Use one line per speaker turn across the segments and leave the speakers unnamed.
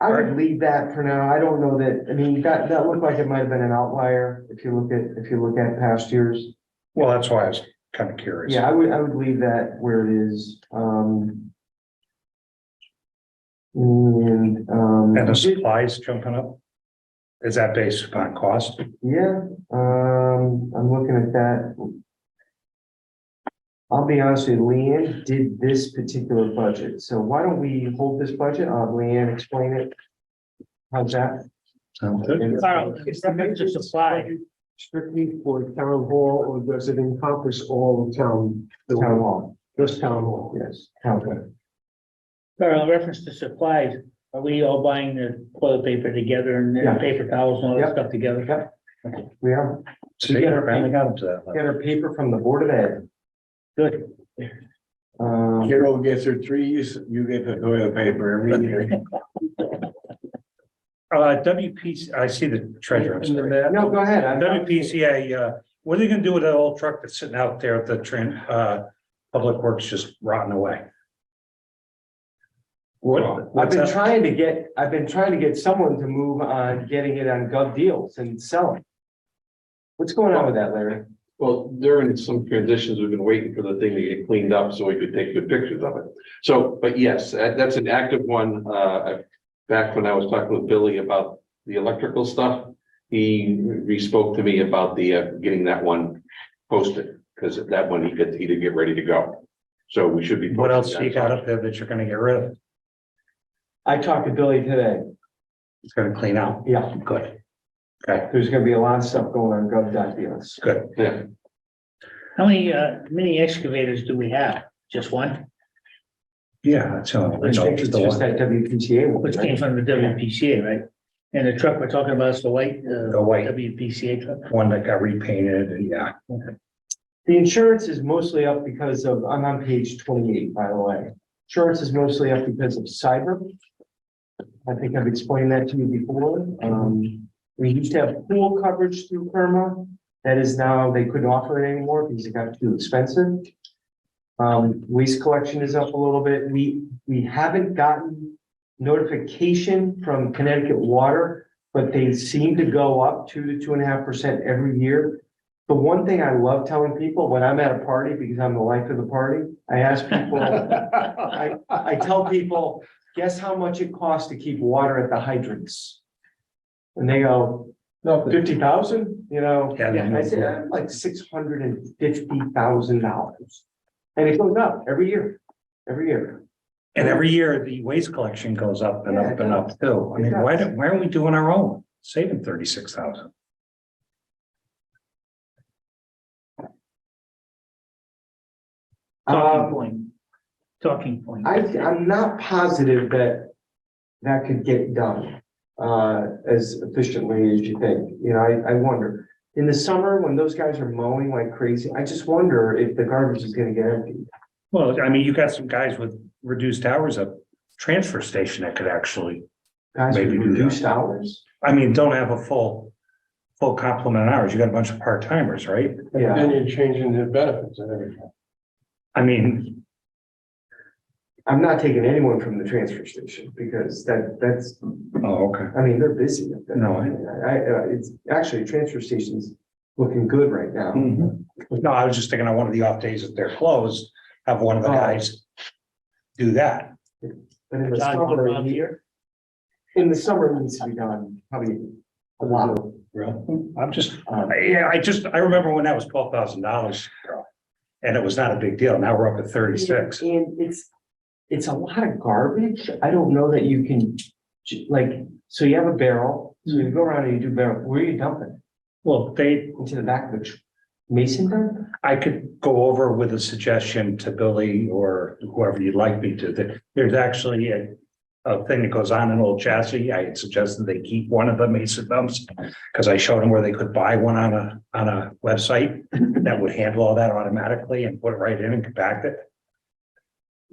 I would leave that for now. I don't know that, I mean, that, that looked like it might have been an outlier if you look at, if you look at past years.
Well, that's why I was kind of curious.
Yeah, I would, I would leave that where it is, um. And, um.
And the supplies jumping up? Is that based upon cost?
Yeah, um, I'm looking at that. I'll be honest with you, Leanne did this particular budget, so why don't we hold this budget, I'll have Leanne explain it. How's that?
Sounds good.
Carl, it's the major supply.
Strictly for town hall, or does it encompass all of town,
Town hall,
just town hall?
yes, town hall.
Carl, in reference to supplies, are we all buying the toilet paper together and
Yeah.
the paper towels and all
Yep.
that stuff together?
Yep. We are,
See, I finally got up to that.
get
level.
our paper from the Board of Ed,
Good.
um,
Carol gets her trees, you get the toilet paper every year.
Uh, WPC, I see the treasurer. I'm
In the
sorry.
map.
no, go ahead. I'm-
WPCA, uh, what are they gonna do with that old truck that's sitting out there at the tran, uh, Public Works just rotting away? What?
I've
what's
been
that?
trying to get, I've been trying to get someone to move on getting it on gov deals and selling. What's going on with that, Larry?
Well, during some transitions, we've been waiting for the thing to get cleaned up so we could take good pictures of it. So, but yes, that- that's an active one. Uh, back when I was talking with Billy about the electrical stuff. He re-spoke to me about the, uh, getting that one posted, because that one he could, he did get ready to go. So we should be.
What else
posting
you
that.
got up there that you're gonna get rid of?
I talked to Billy today,
It's gonna clean out.
yeah,
Good.
there's gonna be a lot of stuff going on gov dot deals.
Good.
Yeah,
How many, uh, mini excavators do we have? Just one,
Yeah, that's. the only
I
one.
think it's just that WPTA one,
which came
right?
from the WPCA, right? And the truck we're talking about is the white, uh,
The white
WPCA truck?
one that got repainted, and yeah.
The insurance is mostly up because of, I'm on page twenty-eight, by the way. Insurance is mostly up because of cyber. I think I've explained that to you before. Um, we used to have pool coverage through Perma. That is now, they couldn't offer it anymore because it got too expensive. Um, waste collection is up a little bit. We, we haven't gotten notification from Connecticut Water, but they seem to go up two to two and a half percent every year. The one thing I love telling people when I'm at a party, because I'm the life of the party, I ask people, I, I tell people, guess how much it costs to keep water at the hydrants? And they go,
Nothing.
fifty thousand, you know?
Yeah, they
I said, "Uh, like six hundred and fifty thousand dollars. And it goes up every year, every year.
And every year, the waste collection goes up and
Yeah,
up
it
and up too. I
It
mean, why
does.
don't, why aren't we doing our own, saving thirty-six thousand?
Um,
Talking point. Talking point.
Um, I, I'm not positive that that could get done uh, as efficiently as you think. You know, I, I wonder. In the summer, when those guys are mowing like crazy, I just wonder if the garbage is gonna get empty.
Well, I mean, you got some guys with reduced hours at transfer station that could actually,
Guys with
Maybe do that.
reduced hours.
I mean, don't have a full, full complement of hours. You got a bunch of part-timers, right?
Yeah,
Then you're changing the benefits and everything.
I mean,
I'm not taking anyone from the transfer station because that, that's,
oh, okay.
I mean, they're busy. up there.
No,
I, I, uh, it's actually, transfer station's looking good right now.
Mm-hmm. No, I was just thinking on one of the off days that they're closed, have one of the
Oh.
guys do that.
But in the
John, put it on
summer,
here.
in the summer, it needs to be done, probably a lot of,
I'm just,
um,
yeah, I just, I remember when that was twelve thousand dollars. And it was not a big deal. Now we're up at thirty-six.
And it's, it's a lot of garbage. I don't know that you can, like, so you have a barrel, so you go around and you do barrel, where are you dumping?
Well, they,
Into the back of the tr- mason dump?
I could go over with a suggestion to Billy or whoever you'd like me to, that there's actually a. A thing that goes on in old chassis. I had suggested they keep one of the mason dumps. Cause I showed them where they could buy one on a, on a website that would handle all that automatically and put it right in and compact it.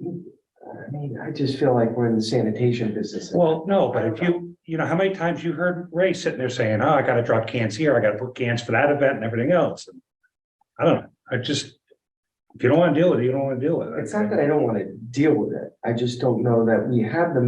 I mean, I just feel like we're in the sanitation business.
Well, no, but if you, you know, how many times you heard Ray sitting there saying, oh, I gotta drop cans here, I gotta put cans for that event and everything else. And I don't know, I just, if you don't wanna deal with it, you don't wanna deal with it.
It's not that I don't want to deal with it. I just don't know that we have the